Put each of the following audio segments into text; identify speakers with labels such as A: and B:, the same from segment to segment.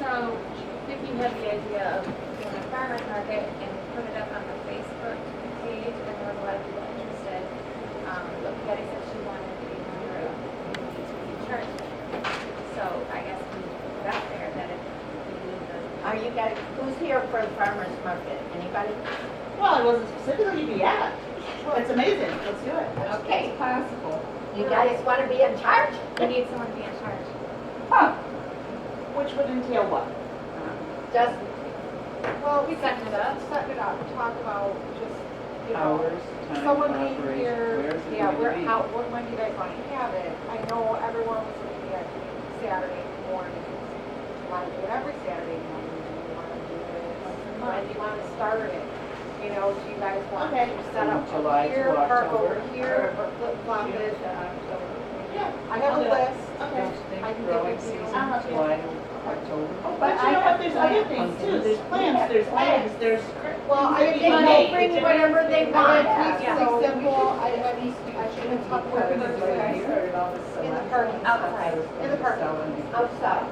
A: So if you have the idea of doing a farmer's market and put it up on the Facebook page, and there was a lot of people interested. Um, But Patty said she wanted to be a member of the community church. So I guess we put out there that if we need the.
B: Are you guys, who's here for the farmer's market? Anybody?
C: Well, it wasn't specifically to be at. Well, it's amazing. Let's do it.
B: Okay,
D: possible.
B: you guys want to be in charge?
A: We need someone to be in charge.
C: Which would entail what?
B: Just
D: Well, we
A: Set
D: can
A: it up.
D: set it up, talk about just, you know,
E: Hours, time of
D: someone being
E: operation, where is
D: here,
E: it
D: yeah,
E: going
D: where,
E: to be?
D: how, when, when do you guys want to have it? I know everyone was going to be at Saturday morning, you want to do it every Saturday morning, you want to do it once a month, you want to start it. You know, do you guys want
C: Okay.
D: to set up
E: From July
D: over
E: to
D: here, park over
E: October.
D: here, or flip flop it?
C: Yeah.
D: I have a list.
C: Okay.
D: I can give
E: Growing
D: it to you.
E: season,
C: Uh-huh.
E: July to October.
C: Oh, but you know what? There's other things too. There's plants, there's eggs, there's.
D: Well,
C: things that
D: I think
C: you
D: they
C: make.
B: bring
C: It's-
B: whatever they
C: it's-
B: want.
D: Keep
A: Yeah.
D: it so simple, I, I mean, I shouldn't talk about it. In the parking lot.
A: Outside.
D: In the parking
B: outside?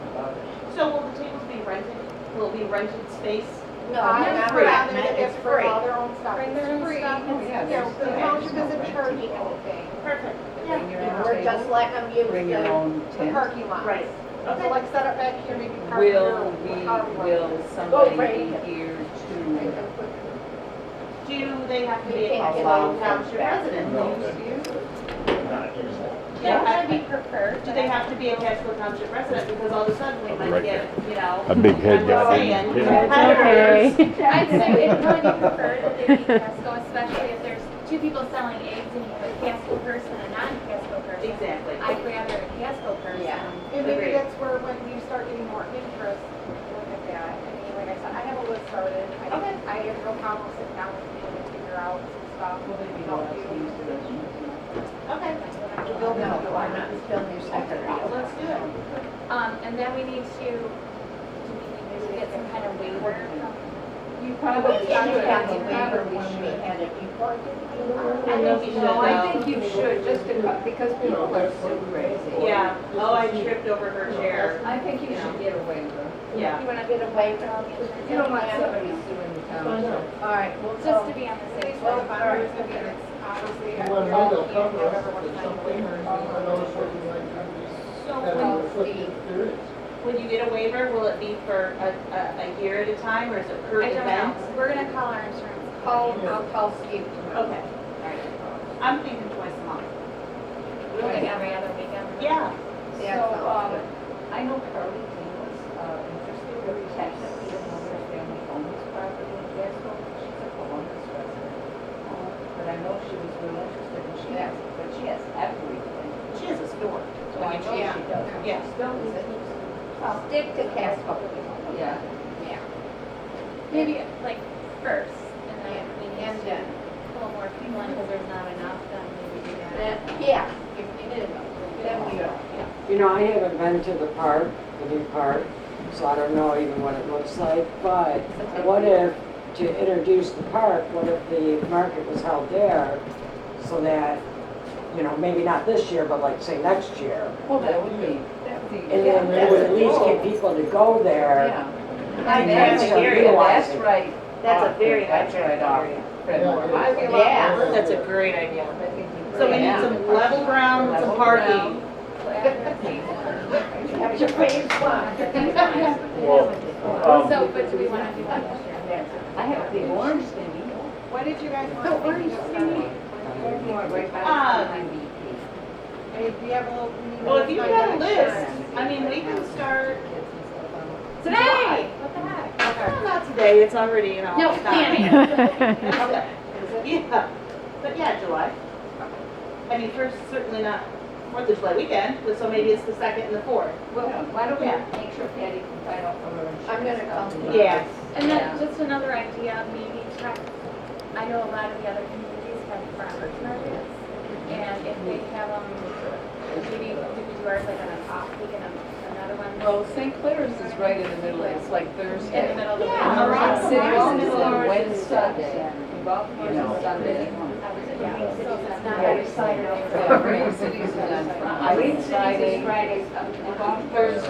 C: So will the tables be rented? Will it be rented space?
B: No,
D: I
B: not
D: would
C: free.
B: right.
D: rather that
B: It's
D: if for
B: free.
D: all their own stuff,
A: Bring their
D: it's
A: own
D: free.
A: stuff.
D: It's,
E: Yeah,
D: you know,
E: there's-
D: the
E: yeah,
D: township
E: there's no
D: isn't
E: rent.
D: charging anything,
C: Perfect.
E: Bring your own
B: We're just
E: table,
B: letting them use
E: bring your
B: the,
E: own
D: the
E: tent.
D: parking lot.
C: Right.
D: So like set up back here, maybe park here.
F: Will we,
D: however you want.
F: will
G: Oh,
B: Go
F: somebody
B: right here.
F: be here
D: Right,
F: to,
D: and put it
C: Do they have to
B: We
C: be
B: can't
C: a
B: get
C: local
B: them
C: township
B: back.
C: resident?
H: Not usually.
C: Yeah.
A: That would be preferred.
C: Do they have to be a Casco Township resident? Because all of a sudden we
H: I'll be
C: might
H: right
C: get, you know.
H: A big head
C: I'm
H: got
C: just
H: big.
C: saying,
H: Yeah.
C: competitors.
A: I'd say it'd probably be preferred that they be Casco, especially if there's two people selling eggs and you have a Casco person and a non-Casco person.
C: Exactly.
A: I'd rather a Casco person.
B: Yeah.
D: And maybe
C: Agreed.
D: that's where, when you start getting more interest, look at that. I mean, like I said, I have a list started. I-
C: Okay.
D: I have no problem sitting down with people and figure out some stuff.
E: Will they be
D: Help
E: allowed to
D: you.
E: use the restroom?
C: Okay,
B: no, why not, it's still new secretary.
C: let's do it.
A: Um, and then we need to, do we need to get some kind of waiver from?
D: You
B: We
D: probably
B: didn't
D: should.
B: have the waiver when we had it before, did we?
C: I think we should,
G: No, I
C: though.
G: think you should, just to cut- because people are so crazy.
C: Yeah, oh, I tripped over her chair.
G: I think you should get a waiver.
C: Yeah.
A: You wanna
B: Get a waiver.
G: You don't want somebody suing the township.
B: All right, we'll
A: Just
B: go.
A: to be on the
D: They
A: safe
D: swear
A: side.
D: the boundaries, I mean, it's obviously.
I: Well,
D: all
I: maybe they'll cover
D: can't
I: us
D: have
I: with
D: everyone's
I: something or
D: time.
I: another certain activity that
C: So
I: we restrict if there is.
C: when, when you get a waiver, will it be for a, a, a year at a time or is it per
A: I don't
C: event?
A: know, we're gonna call our insurance.
B: Call, I'll call Steve tomorrow.
C: Okay, I'm thinking twice a month.
A: Like every other weekend.
C: Yeah,
B: Yeah,
G: So,
B: sounds
G: um,
B: good.
G: I know Carly Dean was uh, interested in technically in another family owns property in Casco. She's a Columbus resident. Um, But I know she was real interested and she has, but she has everything.
C: she has a store.
G: So I know she does.
C: Yeah.
G: She still is it.
B: I'll stick to Casco.
G: Yeah.
A: Maybe like first, and then we
B: And
A: need to
B: then,
A: pull more people in because there's not enough, then maybe do that.
B: then, yeah, if we did, then we don't.
J: You know, I haven't been to the park, the new park, so I don't know even what it looks like, but what if, to introduce the park, what if the market was held there so that, you know, maybe not this year, but like, say, next year?
G: Well, that would be, that would be.
J: And then it would at least get people to go there.
G: Oh. Yeah.
J: And then
G: That's
J: start
C: area,
J: realizing-
G: That's right.
C: That's a very
G: That's
C: high
G: right off Fredmore
I: Yeah,
G: Highway.
I: it is.
B: Yeah.
C: That's a great idea.
G: I think you
C: So we
G: bring
C: need
G: it up.
C: some level ground, some
G: Level
C: parking.
A: So after season.
B: Have your phase one.
H: Well, um,
A: So, but do we wanna do that this year?
G: I have the orange thingy.
D: What did you guys want to think about?
G: Uh-huh. Fredmore right by
C: Ah.
G: the MVP.
D: I mean, we have a little. we need
C: Well, if
D: to
C: you
D: find
C: got a
D: out.
C: list, I mean, we can start,
A: Today! What the heck?
C: well, not today, it's already, you know.
A: No,
C: it's not.
A: planning.
C: Okay. Yeah, but yeah, July. I mean, first, certainly not Fourth of July weekend, but so maybe it's the second and the fourth.
G: Well, why don't we
C: Yeah.
G: make sure Patty can find out from her insurance?
B: I'm gonna call
G: company.
B: them.
C: Yes.
A: And then
G: Yeah.
A: just another idea, maybe check, I know a lot of the other communities have farmers markets. And if they have, um, maybe we could do ours like on an off week and a- another one.
G: Well, St. Clair's is right in the middle, it's like Thursday.
A: In the middle of the.
C: Yeah,
A: week.
C: around
G: City
C: Baltimore's
G: Hall is on Wednesday.
B: Saturday.
G: Baltimore's on Sunday.
A: Yeah, so if it's not
G: Yeah.
A: every Saturday.
G: Yeah, Green City's is on Friday.
B: Green Cities is Fridays,
G: Thursday.